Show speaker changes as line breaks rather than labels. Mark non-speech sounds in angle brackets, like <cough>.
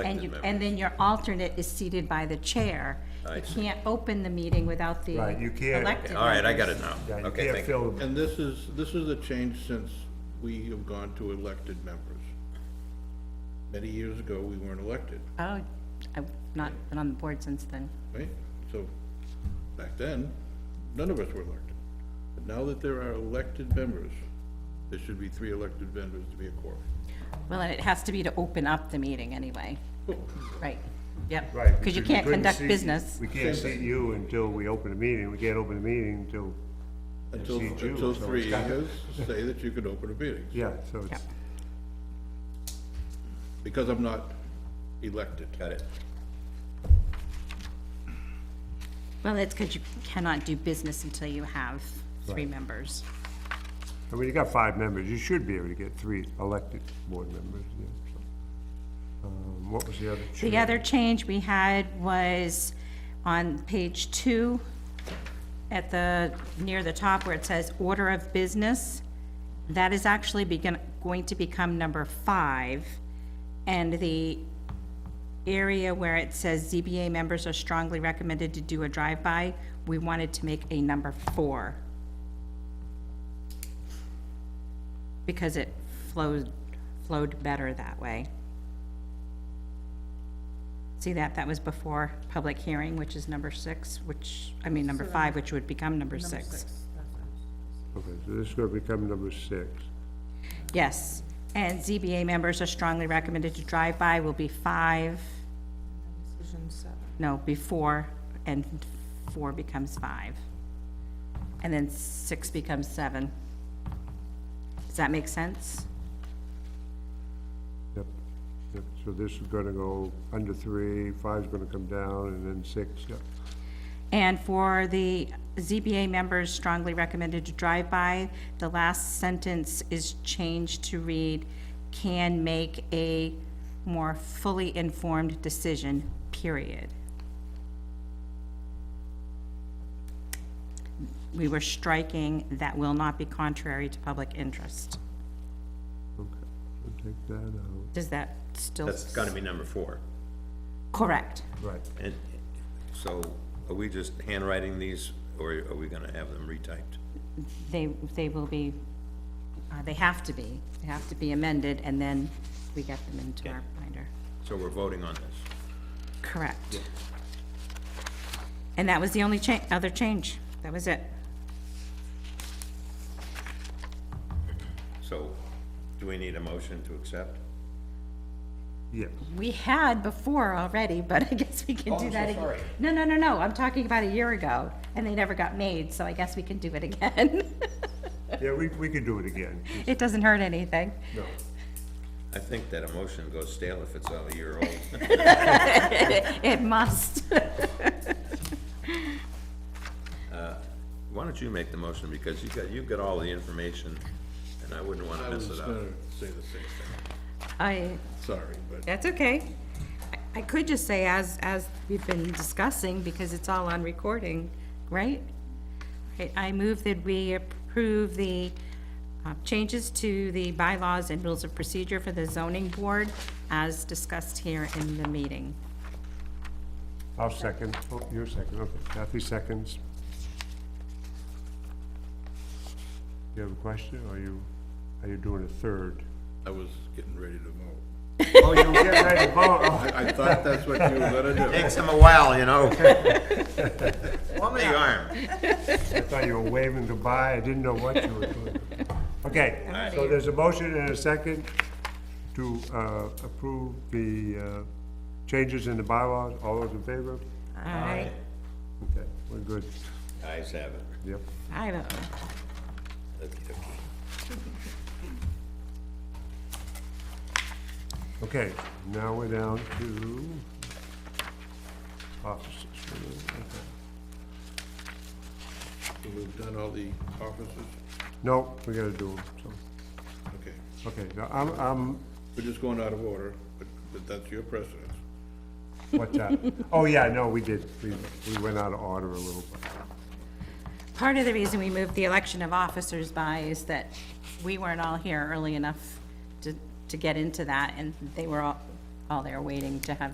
And you, and then your alternate is seated by the chair. You can't open the meeting without the
Right, you can't-
elected.
All right, I got
members.
it now.
Yeah, you
Okay,
can't
thank you.
fill,
And this is, this is a change since we have gone to elected members. Many years ago, we weren't elected,
Oh, I've not been on the board since then.
right? So, back then, none of us were elected. But now that there are elected members, there should be three elected members to be a quorum.
Well, and it has to be to open up the meeting anyway, right? Yep.
right.
Because you
we
can't
couldn't
conduct
seat-
business.
We can't seat you until we open the meeting, we can't open the meeting until,
Until,
see Jew, so
until
it's
three
kinda-
years say that you can open a meeting,
yeah, so it's,
because I'm not elected.
Got it.
Well, that's because you cannot do business until you have three members.
I mean, you got five members, you should be able to get three elected board members, yeah, so. Um, what was the other?
The
chair?
other change we had was on page two, at the, near the top where it says order of business. That is actually begin, going to become number five. And the area where it says ZBA members are strongly recommended to do a drive-by, we wanted to make a number four. Because it flowed, flowed better that way. See that, that was before public hearing, which is number six, which, I mean, number five, which would become number six.
Okay, so this is gonna become number six.
Yes, and ZBA members are strongly recommended to drive by will be five, no, before, and four becomes five. And then six becomes seven. Does that make sense?
Yep, yep, so this is gonna go under three, five's gonna come down, and then six, yep.
And for the ZBA members strongly recommended to drive by, the last sentence is changed to read, can make a more fully informed decision, period. We were striking, that will not be contrary to public interest.
Okay, we'll take that out.
Does that still?
That's gotta be number four.
Correct.
Right.
And so are we just handwriting these or are we gonna have them retyped?
They, they will be, uh, they have to be, they have to be amended, and then we get them into our binder.
So we're voting on this.
Correct. And that was the only cha, other change. That was it.
So do we need a motion to accept?
Yes,
We had before already, but <laughs> I guess we can
Oh,
do
I'm so
that again.
sorry.
No, no, no, no, I'm talking about a year ago, and they never got made, so I guess we can do it <laughs> again.
yeah, we, we could do it again.
It doesn't hurt anything.
No.
I think that a motion goes stale if it's a year old.
It must. <laughs>
Why don't you make the motion because you got, you've got all the information and I wouldn't wanna
I
mess
was
it
gonna
up.
say the same thing,
I,
sorry, but.
that's okay. I- I could just say as, as we've been discussing, because it's all on recording, right? Right, I move that we approve the uh, changes to the bylaws and rules of procedure for the zoning board as discussed here in the meeting.
I'll second, oh, you're second, okay, Kathy seconds. You have a question, or you, are you doing a third?
I was getting ready to vote.
Oh, you were getting ready to vote, oh,
I, I thought that's what you were gonna do.
Takes them a while, you know? <laughs> The arm.
<laughs> I thought you were waving goodbye, I didn't know what you were doing. Okay, so there's a motion and a second to, uh, approve the, uh, changes in the bylaws, all those in favor?
All right.
Okay, we're good,
Eyes have it.
yep.
I don't,
Okey-dokey.
Okay, now we're down to offices. Okay.
So We've done all the offices,
No, we gotta do them, so,
okay.
okay, so I'm, I'm,
We're just going out of order, but, but that's your precedence.
what's that? Oh, yeah, no, we did, we, we went out of order a little bit.
part of the reason we moved the election of officers by is that we weren't all here early enough to, to get into that, and they were all, while they're waiting to have